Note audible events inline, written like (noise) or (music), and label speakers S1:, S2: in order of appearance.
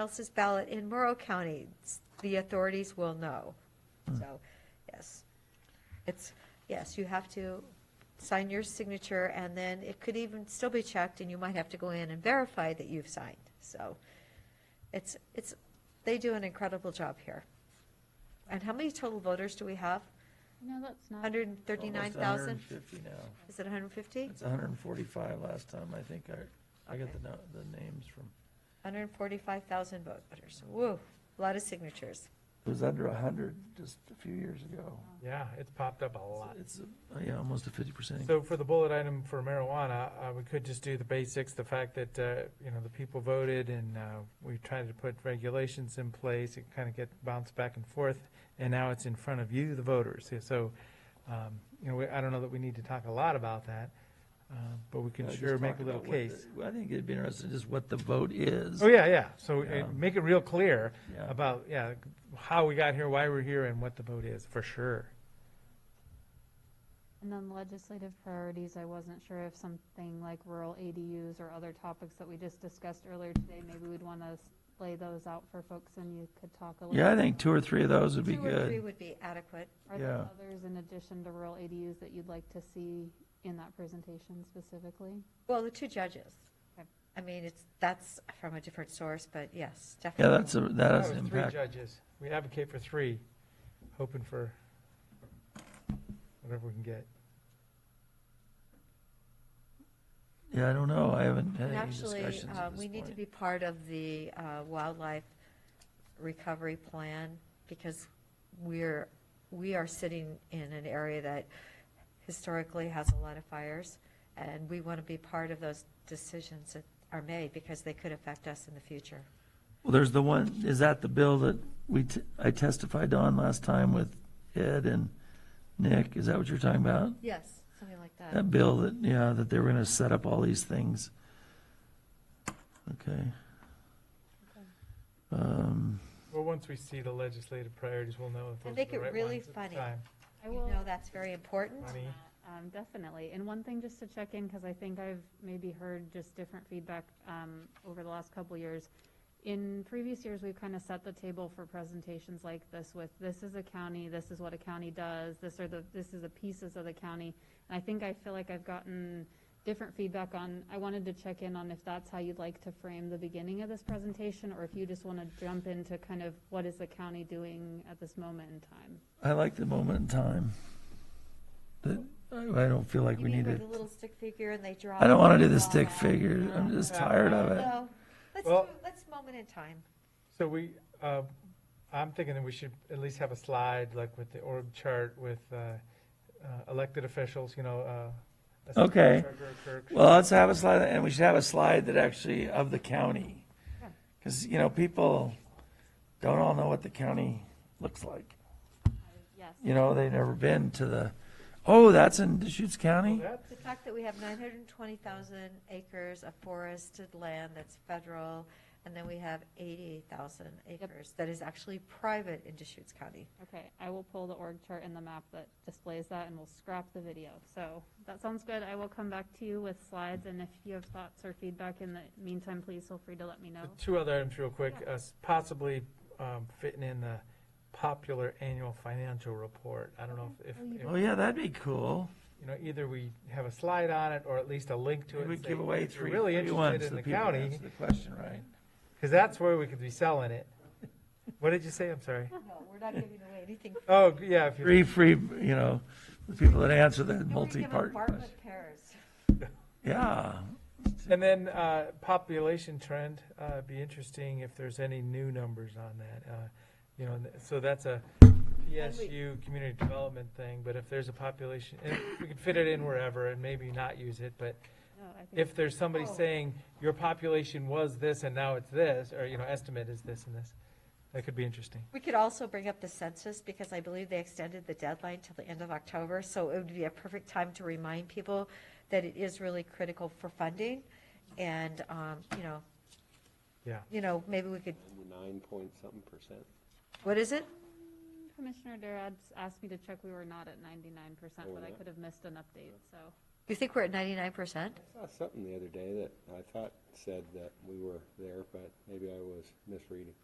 S1: else's ballot in Morrow County, s- the authorities will know.
S2: Hmm.
S1: So, yes. It's, yes, you have to sign your signature, and then it could even still be checked, and you might have to go in and verify that you've signed. So it's, it's, they do an incredible job here. And how many total voters do we have?
S3: No, that's not.
S1: 139,000?
S2: Almost 150 now.
S1: Is it 150?
S2: It's 145 last time, I think. I, I got the, no- the names from,
S1: 145,000 voters. Woo, a lot of signatures.
S2: it was under 100 just a few years ago.
S4: Yeah, it's popped up a lot.
S2: It's, uh, yeah, almost a 50%
S4: So for the bullet item for marijuana, uh, we could just do the basics, the fact that, uh, you know, the people voted and, uh, we tried to put regulations in place, it kind of get bounced back and forth, and now it's in front of you, the voters. Yeah, So, um, you know, we, I don't know that we need to talk a lot about that, uh, but we
S2: Yeah,
S4: can
S2: just
S4: sure make
S2: talk
S4: a little
S2: about what the-
S4: case.
S2: well, I think it'd be interesting just what the vote is.
S4: Oh, yeah, yeah, so
S2: Yeah.
S4: uh, make it real clear
S2: Yeah.
S4: about, yeah, how we got here, why we're here, and what the vote is, for sure.
S3: And then legislative priorities, I wasn't sure if something like rural ADUs or other topics that we just discussed earlier today, maybe we'd want to lay those out for folks and you could talk a little.
S2: Yeah, I
S3: bit
S2: think two or three of those would be
S1: Two or three
S2: good.
S1: would be adequate.
S3: Are there
S2: yeah.
S3: others in addition to rural ADUs that you'd like to see in that presentation specifically?
S1: Well, the two judges.
S3: Okay.
S1: I mean, it's, that's from a different source, but yes,
S2: Yeah,
S1: definitely.
S2: that's, a that has
S4: That
S2: an
S4: was Three
S2: impact.
S4: judges. We advocate for three, hoping for whatever we can get.
S2: Yeah, I don't know. I haven't had
S1: And
S2: any
S1: actually,
S2: discussions
S1: uh,
S2: at
S1: we
S2: this
S1: need to
S2: point.
S1: be part of the uh, wildlife recovery plan because we're, we are sitting in an area that historically has a lot of fires. And we want to be part of those decisions that are made because they could affect us in the future.
S2: Well, there's the one, is that the bill that we, t- I testified on last time with Ed and Nick? Is that what you're talking about?
S1: Yes, something like that.
S2: That bill that, yeah, that they were gonna set up all these things. Okay. Um,
S4: Well, once we see the legislative priorities, we'll know if
S1: And
S4: those
S1: make
S4: are the
S1: it
S4: right
S1: really
S4: ones at the
S1: funny.
S4: time.
S3: I
S1: You
S3: will-
S1: know, that's very important.
S4: Funny.
S3: Um, definitely. And one thing just to check in, because I think I've maybe heard just different feedback, um, over the last couple years. In previous years, we've kind of set the table for presentations like this with, this is a county, this is what a county does, this are the, this is the pieces of the county. And I think I feel like I've gotten different feedback on, I wanted to check in on if that's how you'd like to frame the beginning of this presentation, or if you just want to jump into kind of what is the county doing at this moment in time?
S2: I like the moment in time. That, I I don't feel like
S1: You
S2: we
S1: mean
S2: need
S1: with
S2: it.
S1: the little stick figure and they draw?
S2: I don't wanna do the
S1: it
S2: stick
S1: all out?
S2: figure. I'm just tired of it.
S1: No, Uh-huh. let's,
S4: Well-
S1: do- let's moment in time.
S4: So we, uh, I'm thinking that we should at least have a slide, like with the org chart with uh, uh, elected officials, you know. uh, assistant
S2: Okay.
S4: treasurer, clerk.
S2: Well, let's have a slide, and we should have a slide that actually of the county. Cause, you know, people don't all know what the county looks like.
S3: Yes.
S2: You know, they've never been to the, oh, that's in Deschutes
S4: Well,
S2: County?
S4: that's-
S1: The fact that we have 920,000 acres of forested land that's federal, and then we have 80,000 acres that is actually private in Deschutes
S2: (laughs)
S1: County.
S3: Okay, I will pull the org chart and the map that displays that, and we'll scrap the video. So that sounds good. I will come back to you with slides, and if you have thoughts or feedback in the meantime, please feel free to let me know.
S4: The Two other items real quick, uh, s- possibly um, fitting in the popular annual financial report. I don't know
S1: Mm-hmm.
S4: if,
S3: Oh, you
S4: if-
S2: Oh, yeah, that'd be cool.
S4: you know, either we have a slide on it or at least a link to it.
S2: We
S4: and
S2: would
S4: say,
S2: give away
S4: if you're
S2: three
S4: Really
S2: free ones
S4: interested
S2: to
S4: in
S2: the
S4: the
S2: people that
S4: county,
S2: answer the question, right?
S4: because that's where we could be selling it. (laughs) What did you say? I'm sorry.
S1: No, we're not giving away anything.
S4: Oh, yeah, if you,
S2: Three free, you know, the people that answer the multi-part question. Yeah,
S4: and then, uh, population trend, uh, it'd be interesting if there's any new numbers on that. Uh, You know, and so that's a PSU community development thing, but if there's a population, and we could fit it in wherever and maybe not use it, but
S3: No, Uh, I think-
S4: if there's somebody
S1: Oh.
S4: saying, your population was this and now it's this, or, you know, estimate is this and this, that could be interesting.
S1: We could also bring up the census, because I believe they extended the deadline till the end of October, so it would be a perfect time to remind people that it is really critical for funding, and, um, you know,
S4: Yeah.
S1: you know, maybe we could,
S5: We're nine point something percent.
S1: what is it?
S3: Commissioner Durad asked me to check, we were not at ninety-nine percent,
S5: Oh,
S3: but I
S5: yeah.
S3: could have missed an update, so.
S1: You think we're at ninety-nine percent?
S5: I saw something the other day that I thought said that we were there, but maybe I was misreading.